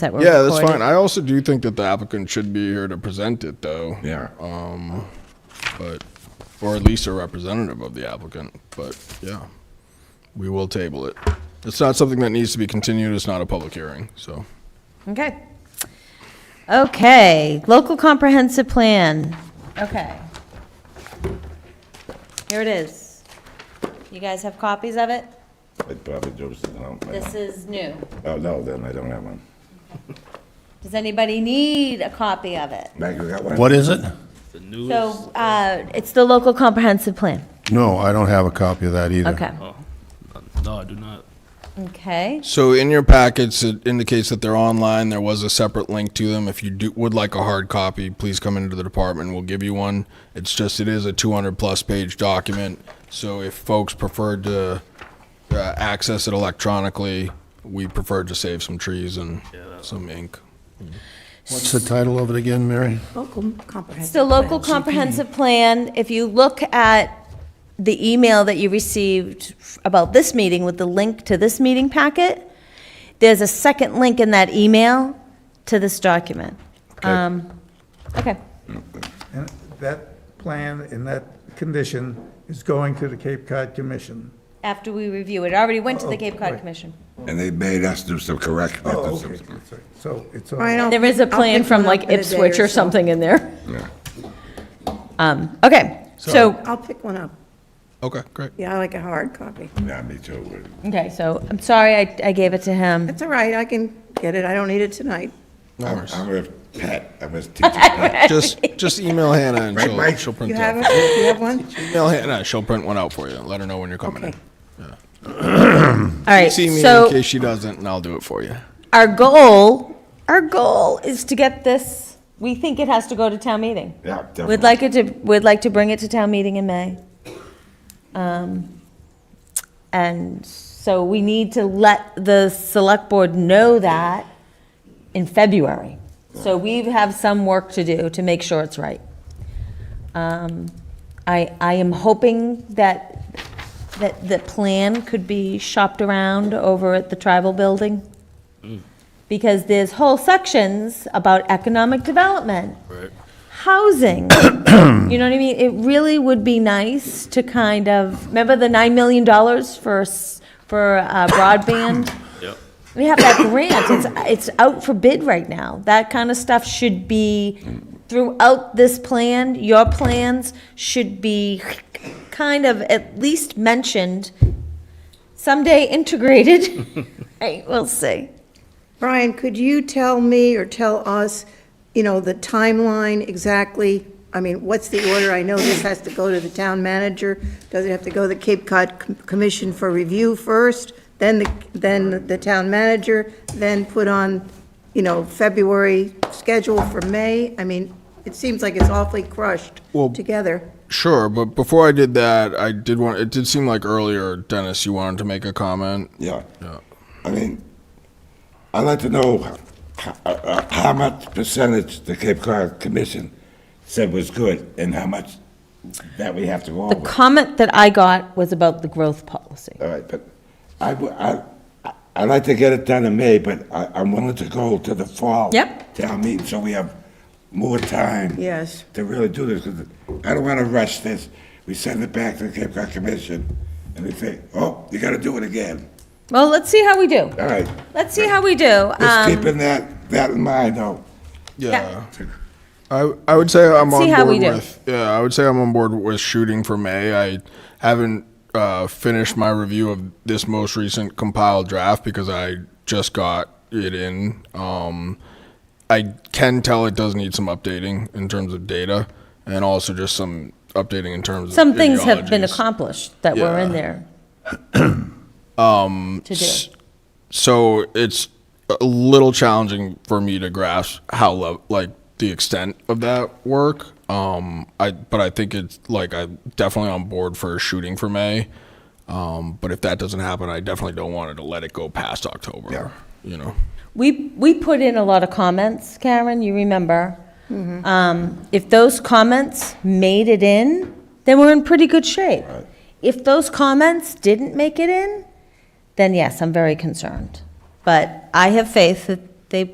that were Yeah, that's recorded. fine. I also do think that the applicant should be here to present it, though. Yeah. Um, but, or at least a representative of the applicant, but, yeah. We will table it. It's not something that needs to be continued, it's not a public hearing, so. Okay. Okay, local comprehensive plan. Okay. Here it is. You guys have copies of it? It probably goes down. This is new. Oh, no, then I don't have one. Does anybody need a copy of it? Meg, you got one? What is it? So, uh, it's the local comprehensive plan. No, I don't have a copy of that either. Okay, No, I do not. okay. So in your packets, it indicates that they're online. There was a separate link to them. If you do, would like a hard copy, please come into the department. We'll give you one. It's just, it is a 200 plus page document. So if folks preferred to uh, access it electronically, we preferred to save some trees and some ink. What's the title of it again, Mary? Local comprehensive. It's the local comprehensive plan. If you look at the email that you received about this meeting with the link to this meeting packet, there's a second link in that email to this document. Um, Okay, And that plan in that condition is going to the Cape Cod Commission. after we review it, it already went to Oh, the Cape Cod right. Commission. And they made us do some correct. Oh, okay. So it's all. All right, I'll There is a pick- I'll plan pick from one like up in a day Ipswich or so. something in there. Yeah. Um, Okay, so, I'll pick one up. Okay, great. Yeah, I like a hard copy. Yeah, me too. okay, so I'm sorry I I gave it to him. It's all right, I can get it, I don't need it tonight. No I'm worries. I'm with Pat, I'm with teacher Pat. Just, just email Hannah and Right, she'll, Mike? she'll print You it have out. it, you have one? Email Hannah, she'll print one out for you. Let her know when you're coming in. Okay. All right, See me in so case she doesn't and I'll do it for you. our goal, our goal is to get this, we think it has to go to town meeting. Yeah, definitely. We'd like it to, we'd like to bring it to town meeting in May. Um, And so we need to let the select board know that in February. So we have some work to do to make sure it's right. Um, I, I am hoping that, that the plan could be shopped around over at the tribal building. Because there's whole sections about economic development housing. you know what I mean? It really would be nice to kind of, remember the $9 million for, s- for uh, broadband? Yep. We have that grant, it's, it's out for bid right now. That kind of stuff should be throughout this plan, your plans should be kind of at least mentioned, someday integrated. Hey, we'll see. Brian, could you tell me or tell us, you know, the timeline exactly? I mean, what's the order? I know this has to go to the town manager. Does it have to go to the Cape Cod Com- Commission for review first, then the, then the town manager, then put on, you know, February schedule for May? I mean, it seems like it's awfully crushed Well- together. Sure, but before I did that, I did want. It did seem like earlier, Dennis, you wanted to make a comment. Yeah. I mean, I'd like to know h- h- uh, how much percentage the Cape Cod Commission said was good and how much that we have to go The over. comment that I got was about the growth policy. All right, but I, w- I, I- I'd like to get it done in May, but I, I'm willing to go to the fall. Yep. Town meeting, so we have more time. Yes. To really do this, 'cause I don't wanna rush this. We send it back to the Cape Cod Commission, and they say, oh, you gotta do it again. Well, let's see how we do. All right, Let's see how we do. just Um, keeping that, that in mind, though. Yeah, I I would say I'm Let's on see board how we do. with. Yeah, I would say I'm on board with shooting for May. I haven't uh, finished my review of this most recent compiled draft because I just got it in. Um, I can tell it does need some updating in terms of data, and also just some updating in terms of Some things have been ideologies. accomplished that were in Yeah. there. Um. To do. so it's a little challenging for me to grasp how lo- like the extent of that work um i but i think it's like i'm definitely on board for shooting for may um but if that doesn't happen i definitely don't want to let it go past october you know We, we put in a lot of comments, Karen, you remember. Um, If those comments made it in, then we're in pretty good shape. If those comments didn't make it in, then yes, I'm very concerned. But I have faith that